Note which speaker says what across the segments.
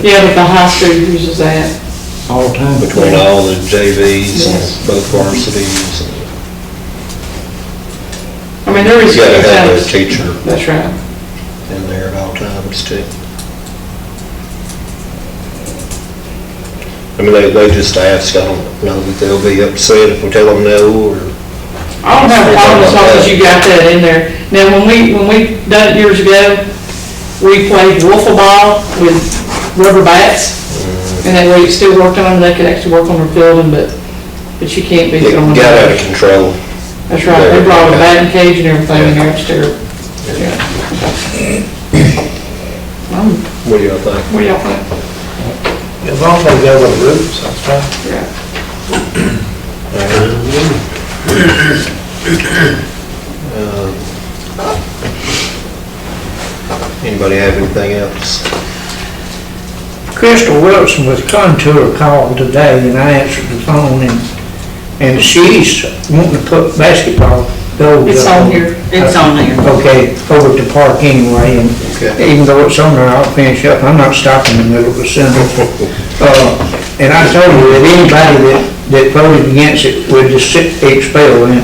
Speaker 1: Yeah, but the high school uses that.
Speaker 2: all the time between
Speaker 3: between
Speaker 2: us.
Speaker 3: all the
Speaker 1: Yes.
Speaker 3: JVs and both varsities.
Speaker 1: I mean, there is.
Speaker 3: You gotta have a teacher
Speaker 1: That's right.
Speaker 3: in there at all times too. I mean, they, they just ask, I don't know that they'll be upset if we tell them no, or
Speaker 1: I don't have a problem as long as you got that in there. Now, when we, when we done it years ago, we played wiffle ball with rubber bats. And that way it still worked on them, they could actually work on their fielding, but, but you can't be
Speaker 3: it
Speaker 1: throwing.
Speaker 3: got out of
Speaker 1: them.
Speaker 3: control.
Speaker 1: That's right, they brought a batting cage and everything in there upstairs. Yeah. Um,
Speaker 3: What do y'all think?
Speaker 1: What do y'all think?
Speaker 4: As long as they go with the rules, that's fine.
Speaker 1: Yeah.
Speaker 3: Um, Anybody have anything else?
Speaker 4: Crystal Wilson was contour called today and I answered the phone and, and she's wanting to put basketball goals.
Speaker 1: It's
Speaker 4: up
Speaker 1: on here. It's on there.
Speaker 4: Okay, over to park anyway and
Speaker 3: Okay.
Speaker 4: even though it's on there, I'll finish up. I'm not stopping in the middle of a sentence. Uh, and I told you that anybody that, that voted against it would just sit- expel him.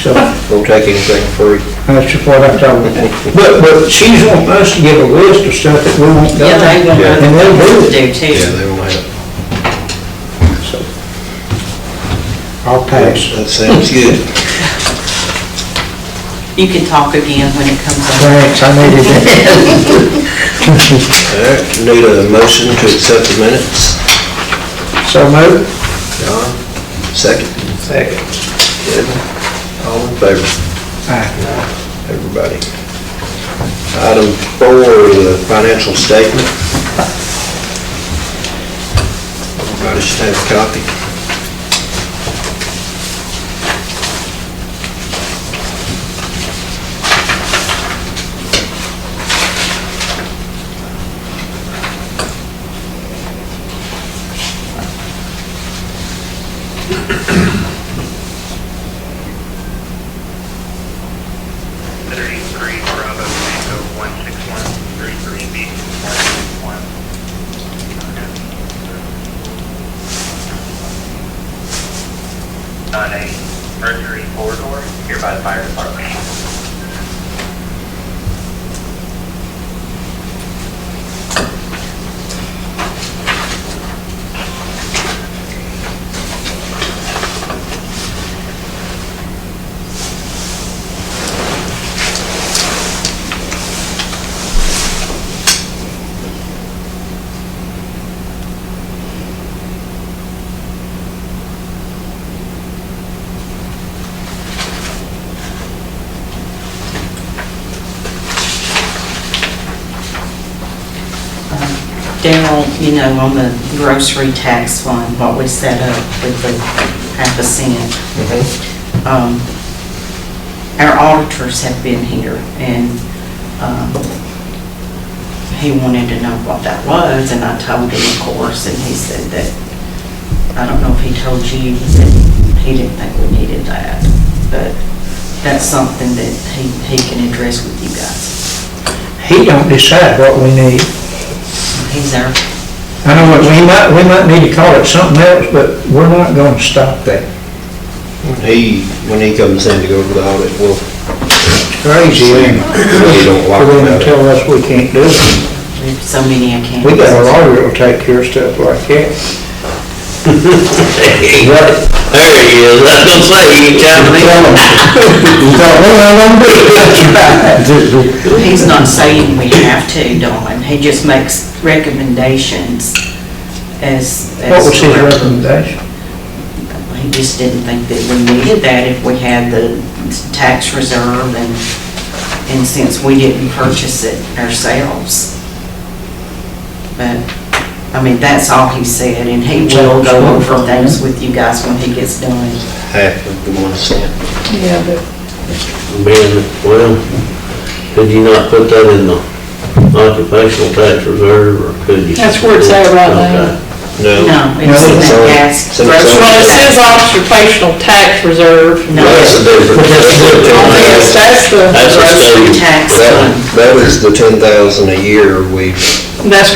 Speaker 4: So.
Speaker 3: We'll take anything free.
Speaker 4: That's just what I told her. But, but she's wanting us to give a list of stuff that we won't do.
Speaker 5: Yeah, they want
Speaker 3: Yeah.
Speaker 5: to
Speaker 4: And they'll do it.
Speaker 5: do
Speaker 3: Yeah,
Speaker 5: too.
Speaker 3: they will have.
Speaker 4: I'll pass.
Speaker 3: That sounds good.
Speaker 5: You can talk again when it comes up.
Speaker 4: Thanks, I needed that.
Speaker 3: All right, need a motion to accept the minutes.
Speaker 4: So moved.
Speaker 3: Don, second.
Speaker 4: Second.
Speaker 3: Kevin, all in favor?
Speaker 4: Aye.
Speaker 3: Everybody. Item four, the financial statement. Everybody should have a copy.
Speaker 6: thirty-three Bravo Tango one six one, thirty-three B one six one. On a Mercury corridor, here by the fire department.
Speaker 5: Daryl, you know, on the grocery tax fund, what we set up with the half a cent.
Speaker 4: Mm-hmm.
Speaker 5: um, Our auditors have been here and um, he wanted to know what that was and I told him, of course, and he said that, I don't know if he told you, he said he didn't think we needed that, but that's something that he, he can address with you guys.
Speaker 4: He don't decide what we need.
Speaker 5: He's our
Speaker 4: I know that we might, we might need to call it something else, but we're not gonna stop that.
Speaker 3: When he, when he comes in to go over the audit, we'll,
Speaker 4: It's crazy. isn't it?
Speaker 3: he don't
Speaker 4: For
Speaker 3: like
Speaker 4: them to
Speaker 3: that.
Speaker 4: tell us we can't do it.
Speaker 5: We have so many accounts.
Speaker 4: We got a lawyer that'll take care of stuff like that.
Speaker 3: There he is, I was gonna say, he ain't telling me.
Speaker 4: Então,
Speaker 5: He's not saying we have to, Dawn, he just makes recommendations as.
Speaker 4: What
Speaker 5: as
Speaker 4: was
Speaker 5: to
Speaker 4: his
Speaker 5: where-
Speaker 4: recommendation?
Speaker 5: He just didn't think that we needed that if we had the tax reserve and, and since we didn't purchase it ourselves. But, I mean, that's all he said, and he will go over things with you guys when he gets done.
Speaker 3: Half of the one cent.
Speaker 1: Yeah, but
Speaker 7: being, well, could you not put that in the occupational tax reserve, or could you?
Speaker 1: That's where it's at right now.
Speaker 3: No.
Speaker 5: No, it's in
Speaker 3: it's
Speaker 5: that
Speaker 3: on-
Speaker 5: gas.
Speaker 3: it's on-
Speaker 5: grocery-
Speaker 1: Well, it says occupational tax reserve.
Speaker 5: No.
Speaker 3: That's the
Speaker 1: Yes,
Speaker 3: difference.
Speaker 1: that's the,
Speaker 7: That's a
Speaker 5: Grocery
Speaker 7: state.
Speaker 5: tax
Speaker 3: That-
Speaker 5: fund.
Speaker 3: That was the ten thousand a year we
Speaker 1: that's